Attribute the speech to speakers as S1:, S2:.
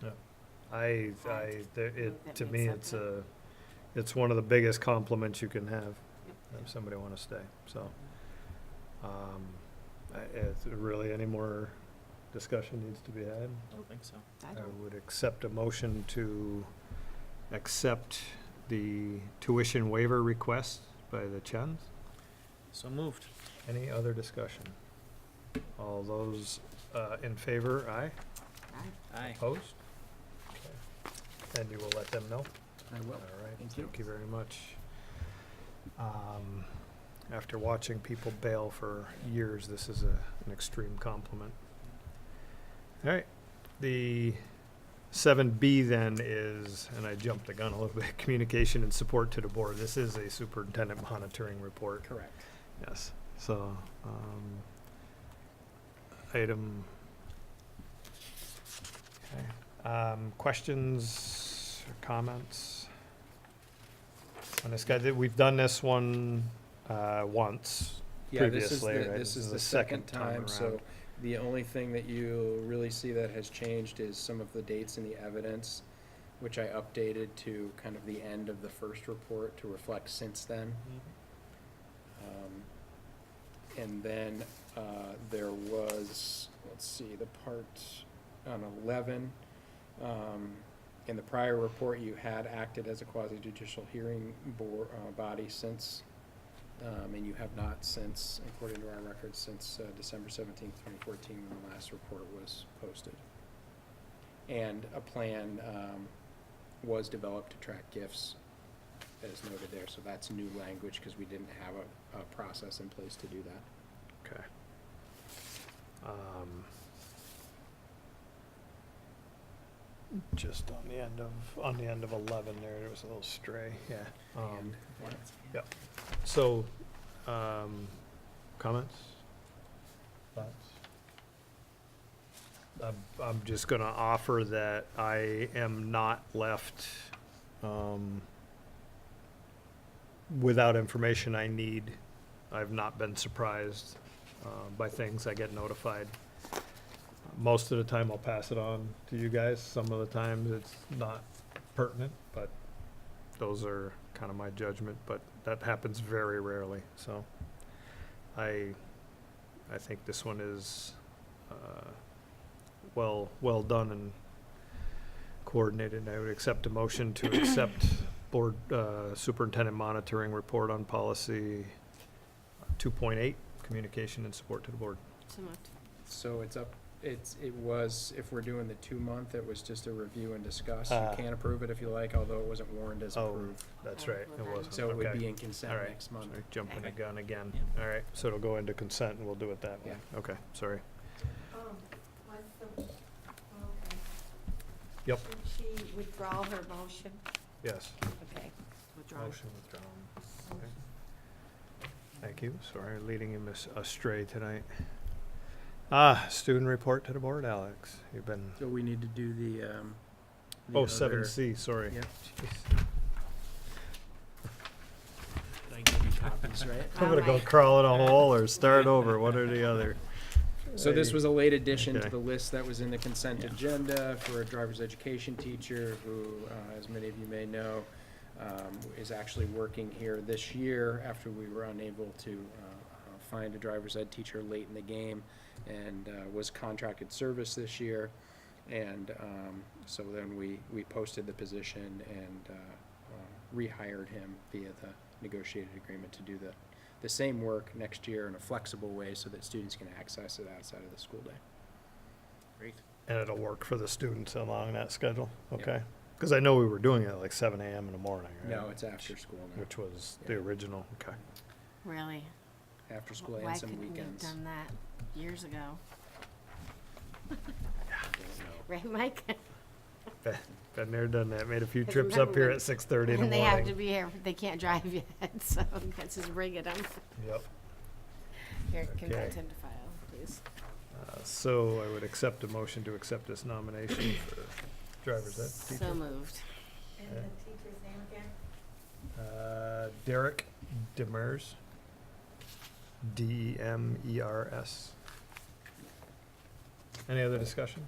S1: to,
S2: I, I,
S1: Right.
S2: there- it,
S1: That
S2: to
S1: makes
S2: me,
S1: sense,
S2: it's
S1: yeah.
S2: a, it's one of the biggest compliments you can have, if somebody wanna stay, so. Um, I, it's really any more discussion needs to be had.
S3: I don't think so.
S1: I
S2: I
S1: don't,
S2: would accept a motion to accept the tuition waiver request by the Chens.
S3: So moved.
S2: Any other discussion? All those, uh, in favor, aye?
S1: I,
S3: Aye.
S2: Opposed? Okay. And you will let them know?
S3: I
S2: All right,
S3: Thank you.
S2: thank you very much. Um, After watching people bail for years, this is a, an extreme compliment. All right, the seven B then is, and I jumped the gun a little bit, communication and support to the board. This is a superintendent monitoring report.
S3: Correct.
S2: Yes, so, um, item. Okay, Um, questions or comments? On this guy, that, we've done this one, uh, once,
S4: Yeah, this is the,
S2: previously, right?
S4: this is the second time, so
S2: around.
S4: the only thing that you really see that has changed is some of the dates in the evidence, which I updated to kind of the end of the first report to reflect since then. Um, And then, uh, there was, let's see, the part on eleven. um, In the prior report, you had acted as a quasi judicial hearing board, uh, body since, um, and you have not since, according to our records, since, uh, December seventeenth, twenty fourteen, when the last report was posted. And a plan, um, was developed to track gifts as noted there, so that's new language, because we didn't have a, a process in place to do that.
S2: Okay. Um, Just on the end of, on the end of eleven there, it was a little stray, yeah. Um,
S4: And-
S2: So, um, comments? Thoughts? I'm, I'm just gonna offer that I am not left, um, without information I need. I've not been surprised, uh, by things. I get notified. Most of the time I'll pass it on to you guys. Some of the times it's not pertinent, but those are kind of my judgment, but that happens very rarely, so. I, I think this one is, uh, well, well done and coordinated. I would accept a motion to accept board, uh, superintendent monitoring report on policy two point eight, communication and support to the board.
S1: so moved.
S4: So it's up, it's, it was, if we're doing the two-month, it was just a review and discuss. You
S2: Ah.
S4: can approve it if you like, although it wasn't warned as
S2: Oh,
S4: approved.
S2: That's right, it wasn't,
S4: So it would
S2: okay.
S4: be in consent
S2: All right.
S4: next month.
S2: Sorry, Jumping the
S1: Okay.
S2: gun again.
S3: Yeah.
S2: All right, so it'll go into consent and we'll do it that way. Okay, sorry.
S5: Um, was the, okay.
S2: Yep.
S5: Did she withdraw her motion?
S2: Yes.
S5: Okay.
S1: Withdrawn.
S2: Motion withdrawn. Okay. Thank you. Sorry, leading him as- astray tonight. Ah, student report to the board, Alex. You've been,
S4: So we need to do the, um. the
S2: oh, seven
S4: other-
S2: C, sorry.
S4: Yep.
S2: Jeez.
S3: I give you copies,
S4: Copies, right?
S2: I'm gonna go crawl in a hole or start over, one or the other.
S4: So this
S2: Hey.
S4: was a late addition
S2: Okay.
S4: to the list that was in the consent
S3: Yeah.
S4: agenda for a driver's education teacher who, uh, as many of you may know, um, is actually working here this year after we were unable to, uh, uh, find a driver's ed teacher late in the game and, uh, was contracted service this year. And, um, so then we, we posted the position and, uh, uh, rehired him via the negotiated agreement to do the, the same work next year in a flexible way so that students can access it outside of the school day.
S3: Great.
S2: And it'll work for the students along that schedule,
S4: Yep.
S2: okay? Because I know we were doing it at like seven AM in the morning, right?
S4: No, it's after school now,
S2: Which was the
S4: Yeah.
S2: original, okay.
S1: Really?
S4: after school
S1: Why
S4: and some
S1: couldn't we have
S4: weekends.
S1: done that years ago?
S4: Don't know.
S1: Right, Mike?
S2: Been there, done that, made a few
S1: 'Cause
S2: trips up
S1: remember
S2: here
S1: when-
S2: at six thirty in the
S1: And they
S2: morning.
S1: have to be here, they can't drive yet, so let's just bring it up.
S2: Yep.
S1: Here, convert
S2: Okay.
S1: him to file, please.
S2: Uh, So I would accept a motion to accept this nomination for driver's ed
S1: So moved.
S5: And
S2: Yeah.
S5: the teacher's name again?
S2: teacher. Uh, Derek Demers, E D-E-M-E-R-S. Any other discussion?